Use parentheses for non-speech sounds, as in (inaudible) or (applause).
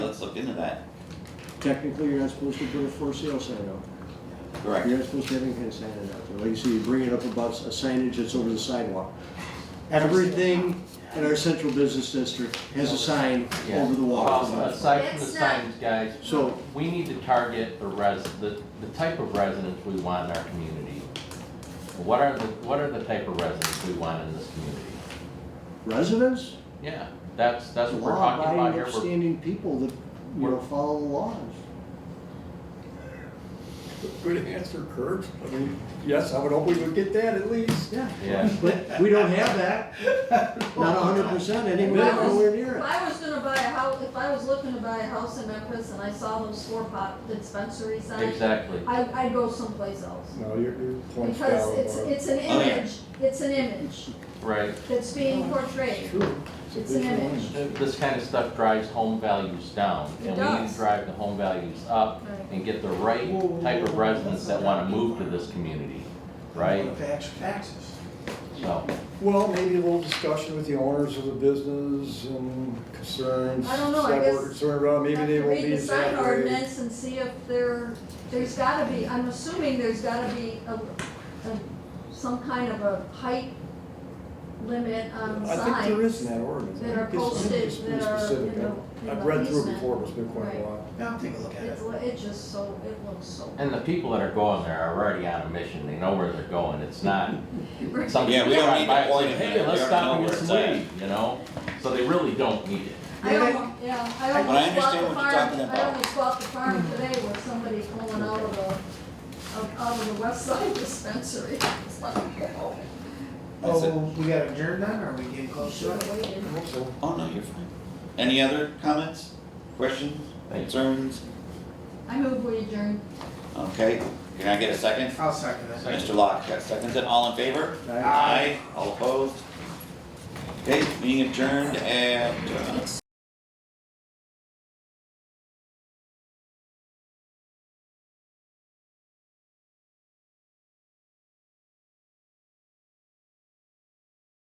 let's look into that. Technically, you're not supposed to put a for sale sign out there. Correct. You're not supposed to have any kind of sign out there. Like you say, you bring it up about a signage that's over the sidewalk. Everything in our central business district has a sign Yeah. over the Um, walk. Aside from the It's not- signs, guys, So- we need to target the res, the, the type of residents we want in our community. What are the, what are the type of residents we want in this community? Residents, Yeah, that's, that's what we're talking about law-abiding, here. We're- upstanding people that, you know, We're- follow the laws. Good answer, Kurt. I mean, yes, I would hope we would get that at least. Yeah. Yeah. But we don't have that, not hundred percent, anywhere, nowhere near If it. I was gonna buy a house, if I was looking to buy a house in Memphis and I saw those four pot dispensary signs, Exactly. I, I'd go someplace else. No, your, your point's Because valid, it's, Barb. it's an Oh, yeah. image, it's an image Right, that's being portrayed. True. It's a an visual image. Uh, this kind of stuff drives home values down, It and we need does. to drive the home values up Right. and get the right type of residents that wanna move to this community, right? taxes. So, Well, maybe a little discussion with the owners of the business and concerns. I don't know, I that we're guess- Concerned about, maybe Have they to will be Read the sign exactly. ordinance and see if there, there's gotta be, I'm assuming there's gotta be a, a, some kind of a height limit on signs. I think there is in that ordinance. I that are think it's- I think it's posted, pretty that are specific. in the- I've- in I've the read through it basement. before, but it's been quite a Right. while. Now, take a look at it. It's, it just so, it looks so. (laughs) and the people that are going there are already on a mission, they know where they're going, it's not something. Yeah, we don't need to by and say, point it Hey, out. let's We stop already and know get where some it's weed, you know, so they really don't need it. I almost, yeah, I But I almost bought understand what you're the farm, talking I about. Hmm. almost bought the farm today with somebody pulling out of the, out out of the west side (laughs) dispensary. It's like, oh, That's it. Oh, we got adjourned then, or are we getting close to should've it? waited. I hope so. Oh, no, you're fine. Any other comments, questions, Thanks. concerns? I move we adjourn. Okay, can I get a second? I'll second that. Mr. Locke, got seconds it, all in favor? Aye. All opposed? Okay, meeting adjourned at, uh,